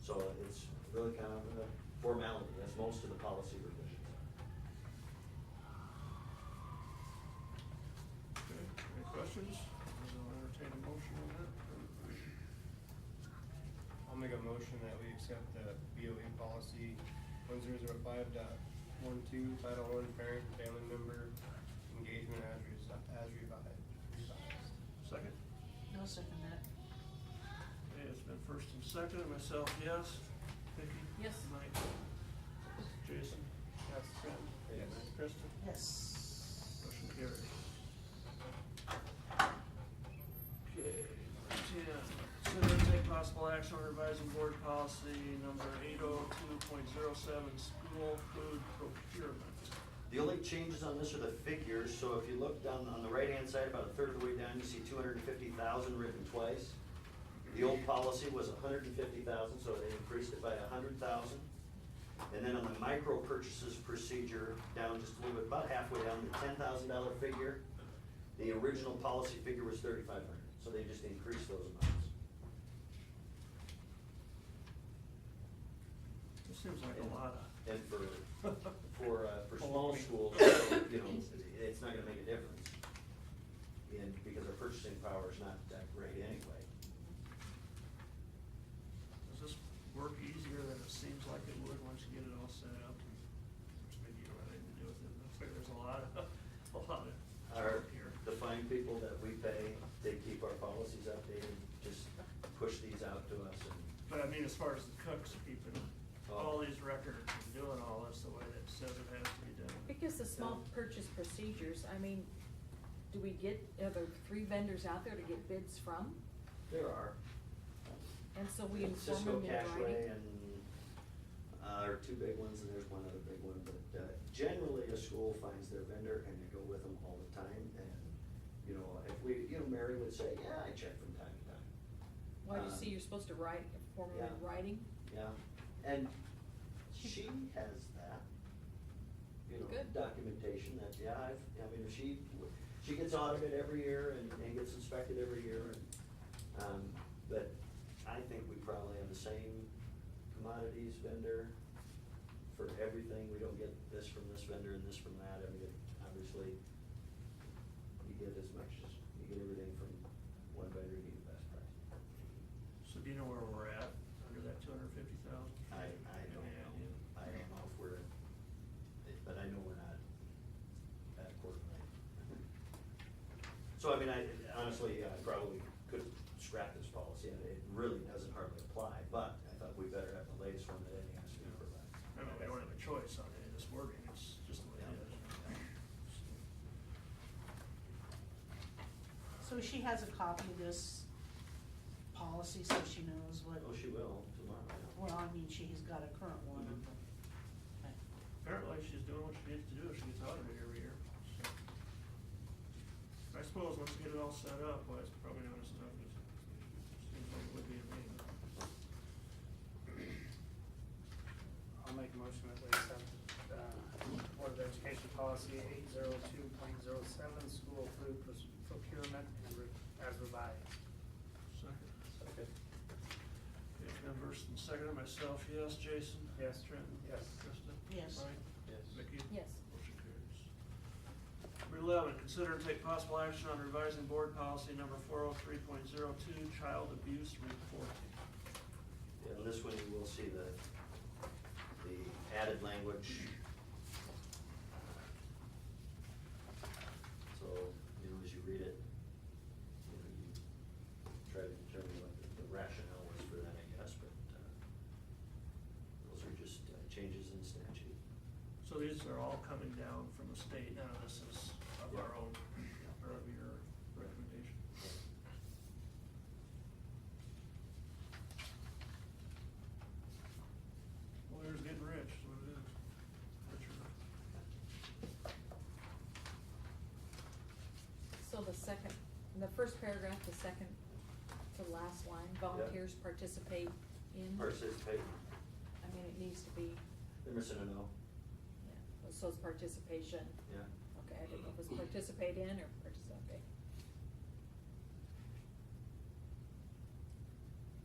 it's really kind of a formality, as most of the policy revisions are. Okay, any questions? I'll entertain a motion on that. I'll make a motion that we accept the BOE policy one zero zero five dot one two, title one, parent, and family member engagement as resi- as revised. revised. Second? No second that. Okay, it's been first and second, myself, yes. Vicky? Yes. Mike? Jason? Yes. Trent? Yes. Kristen? Yes. Motion carries. Okay, number ten, consider and take possible action on revising board policy number eight oh two point zero seven, school food procurement. The only changes on this are the figures, so if you look down on the right-hand side, about a third of the way down, you see two hundred and fifty thousand written twice. The old policy was hundred and fifty thousand, so they increased it by a hundred thousand. And then on the micro purchases procedure, down just a little bit, about halfway down, the ten thousand dollar figure, the original policy figure was thirty-five hundred, so they just increased those amounts. This seems like a lot of. And for, for, uh, for small schools, you know, it's not gonna make a difference. And because our purchasing power is not that great anyway. Does this work easier than it seems like it would once you get it all set up? Which maybe you don't have anything to do with it, but I figure there's a lot of, a lot of Our, work here. the fine people that we pay, they keep our policies updated, just push these out to us and, But I mean, as far as the cooks keeping Oh. all these records and doing all this the way that it says it has to be done. Because the small purchase procedures, I mean, do we get, are there three vendors out there to get bids from? there are. And so we inform them in Cisco Cashway writing? and, uh, are two big ones, and there's one other big one, but, uh, generally a school finds their vendor and they go with them all the time, and, you know, if we, you know, Mary would say, yeah, I check from time to time, Why do you um, see you're supposed to write, inform them in yeah. writing? yeah, and she has that. You know, Good. documentation that, yeah, I've, I mean, if she, w- she gets audited every year and, and gets inspected every year, and, um, but I think we probably have the same commodities vendor for everything, we don't get this from this vendor and this from that, I mean, it- obviously, you get as much as, you get everything from one vendor, you get the best price. So do you know where we're at under that two hundred fifty thousand? I, I don't know, I don't know if we're, but I know we're not at quarter length. So I mean, I, honestly, I probably could scrap this policy, and it really doesn't hardly apply, but I thought we better have the latest one that any has to provide. I mean, we don't have a choice on any of this wording, it's just the way it is. So she has a copy of this policy, so she knows what, Oh, she will tomorrow, I know. well, I mean, she's got a current one, Mhm. but. okay. Apparently, she's doing what she needs to do, if she gets audited every year, so. I suppose once you get it all set up, well, it's probably not as tough as, seems like it would be to me, but. I'll make a motion that we accept, uh, Board of Education Policy eight zero two point zero seven, school food procurement and re- as revised. Second. Okay, Ben Burston, second, myself, yes, Jason? Yes. Trent? Yes. Krista? Yes. Mike? Yes. Vicky? Yes. Motion carries. Number eleven, consider and take possible action on revising board policy number four oh three point zero two, child abuse reporting. Yeah, on this one, you will see the, the added language. So, you know, as you read it, you know, you try to determine what the- the rationale was for that, I guess, but, uh, those are just uh, changes in statute. So these are all coming down from the state, none of this is of our own, or of your recommendation. Lawyers getting rich, is what it is. Richer. So the second, in the first paragraph, the second to last line, volunteers participate in? Participate, I mean, it needs to be, they're missing an O, yeah, so it's participation. yeah. Okay, I didn't know if it was participate in or participate.